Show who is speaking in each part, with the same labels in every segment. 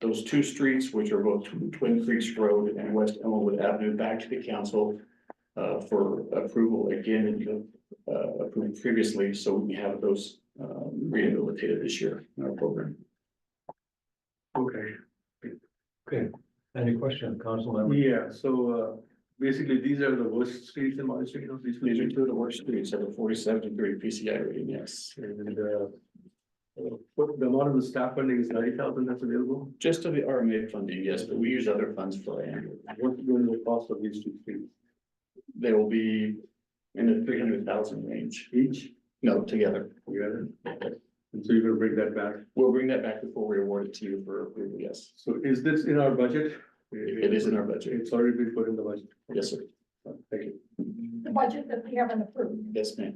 Speaker 1: those two streets, which are both Tw- Twin Creeks Road and West Elmwood Avenue, back to the council uh, for approval again, and uh, approved previously, so we have those um, rehabilitated this year in our program.
Speaker 2: Okay,
Speaker 3: Okay, any question, council member?
Speaker 2: yeah, so uh, basically these are the worst streets in my city, you know, these
Speaker 1: These are
Speaker 2: streets.
Speaker 1: two of the worst streets, at a forty-seven degree PCI rating, yes.
Speaker 2: And uh, uh, what the amount of the staff funding is ninety thousand that's available,
Speaker 1: Just to the RMA funding, yes, but we use other funds for it.
Speaker 2: what's going to the cost of these two streets?
Speaker 1: They will be in the three hundred thousand range.
Speaker 2: Each,
Speaker 1: No, together.
Speaker 2: you got it? And so you're gonna bring that back,
Speaker 1: We'll bring that back before we award it to you for approval, yes.
Speaker 2: so is this in our budget?
Speaker 1: It is in our budget.
Speaker 2: It's already been put in the budget,
Speaker 1: Yes, sir.
Speaker 2: thank you.
Speaker 4: The budget that we haven't approved.
Speaker 1: Yes, ma'am.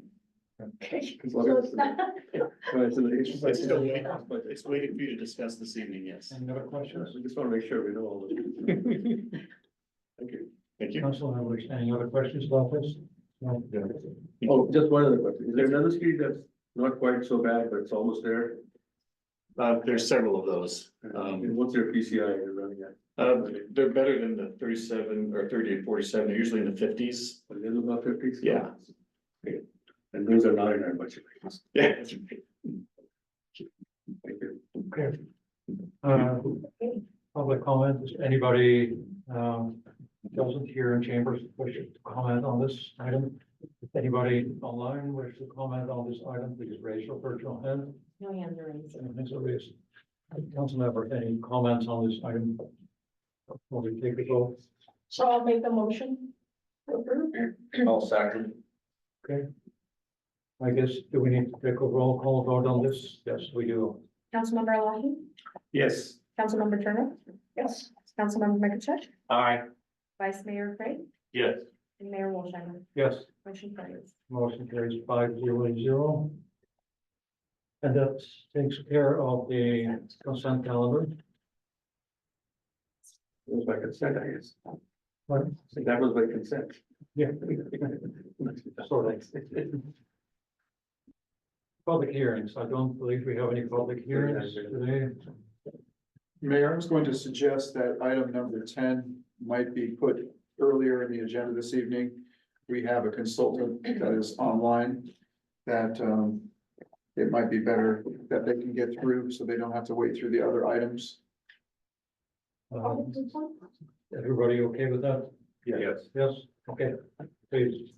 Speaker 4: Okay.
Speaker 2: As long
Speaker 4: So
Speaker 2: as-
Speaker 4: it's not,
Speaker 2: All right, so the issue-
Speaker 1: It's still waiting.
Speaker 2: But
Speaker 1: It's waiting for you to discuss this evening, yes.
Speaker 3: Any other questions?
Speaker 2: I just wanna make sure we know all of it. Thank you.
Speaker 1: Thank you.
Speaker 3: Council members, any other questions about this? No.
Speaker 2: Oh, just one other question, is there another street that's not quite so bad, but it's almost there?
Speaker 1: Uh, there's several of those. Um,
Speaker 2: And what's your PCI you're running at?
Speaker 1: Uh, they're better than the thirty-seven or thirty to forty-seven, they're usually in the fifties.
Speaker 2: A little about fifty?
Speaker 1: Yeah.
Speaker 2: Okay. And those are not in our budget.
Speaker 1: Yeah.
Speaker 2: Thank you.
Speaker 3: Okay. Uh, Public comment, Is anybody um doesn't here in chambers wish to comment on this item? If Anybody online wish to comment on this item, please raise your virtual hand.
Speaker 4: No hands are raised.
Speaker 3: And thanks, Elias. Council member, any comments on this item? Will we take a vote?
Speaker 4: So I'll make the motion. to approve.
Speaker 2: All second.
Speaker 3: I guess, do we need to take a roll call vote on this? Yes, we do.
Speaker 5: Councilmember Alahi,
Speaker 2: Yes.
Speaker 5: Councilmember Turner,
Speaker 4: Yes.
Speaker 5: Councilmember Makachech,
Speaker 2: Aye.
Speaker 5: Vice Mayor Craig,
Speaker 2: Yes.
Speaker 5: and Mayor Wolshimer.
Speaker 3: Yes,
Speaker 5: Motion carries.
Speaker 3: motion carries five zero zero. And that takes care of the consent calendar.
Speaker 2: That was by consent, I guess.
Speaker 3: What?
Speaker 2: So That was by consent.
Speaker 3: Yeah. Sort Public hearings, I don't believe we have any public hearings today.
Speaker 6: Mayor, I was going to suggest that item number ten might be put earlier in the agenda this evening. We have a consultant that is online that um, it might be better that they can get through so they don't have to wait through the other items.
Speaker 4: Oh,
Speaker 3: Um, Everybody okay with that?
Speaker 2: Yes.
Speaker 3: Yes, okay, please.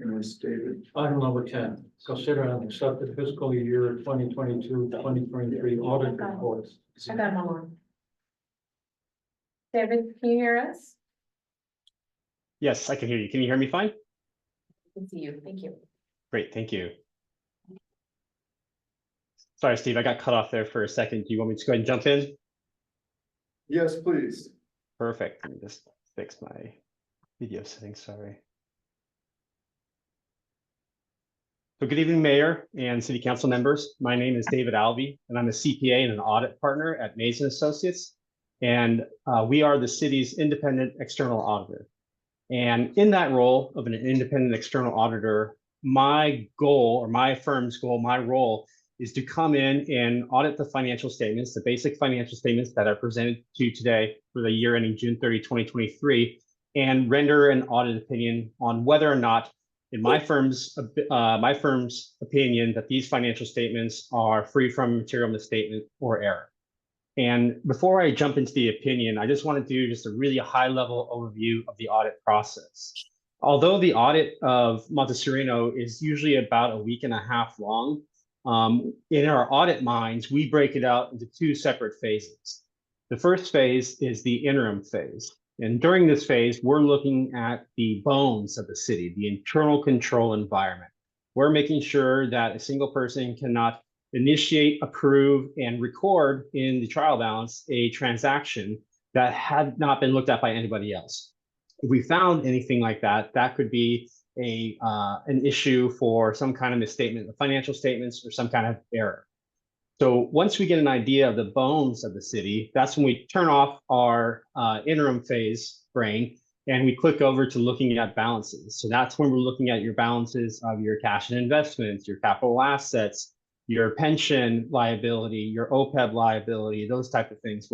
Speaker 6: And it's David.
Speaker 3: Item number ten, consider and accept the fiscal year 2022-2023 audit reports.
Speaker 5: I got him on. David, can you hear us?
Speaker 7: Yes, I can hear you. Can you hear me fine?
Speaker 5: I can see you. Thank you.
Speaker 7: Great, thank you. Sorry, Steve, I got cut off there for a second. Do you want me to go ahead and jump in?
Speaker 6: Yes, please.
Speaker 7: Perfect. Let me just fix my video settings, sorry. So good evening, Mayor and City Council members. My name is David Alvey, and I'm a CPA and an audit partner at Mason Associates. And uh, we are the city's independent external auditor. And in that role of an independent external auditor, my goal or my firm's goal, my role is to come in and audit the financial statements, the basic financial statements that are presented to you today for the year ending June 30, 2023, and render an audit opinion on whether or not, in my firm's, uh, my firm's opinion, that these financial statements are free from material misstatement or error. And before I jump into the opinion, I just want to do just a really high-level overview of the audit process. Although the audit of Montessorino is usually about a week and a half long, um, in our audit minds, we break it out into two separate phases. The first phase is the interim phase. And during this phase, we're looking at the bones of the city, the internal control environment. We're making sure that a single person cannot initiate, approve, and record in the trial balance a transaction that had not been looked at by anybody else. If we found anything like that, that could be a uh, an issue for some kind of misstatement in the financial statements or some kind of error. So once we get an idea of the bones of the city, that's when we turn off our uh, interim phase brain and we click over to looking at balances. So that's when we're looking at your balances of your cash and investments, your capital assets, your pension E liability, your OPEB liability, those type of things.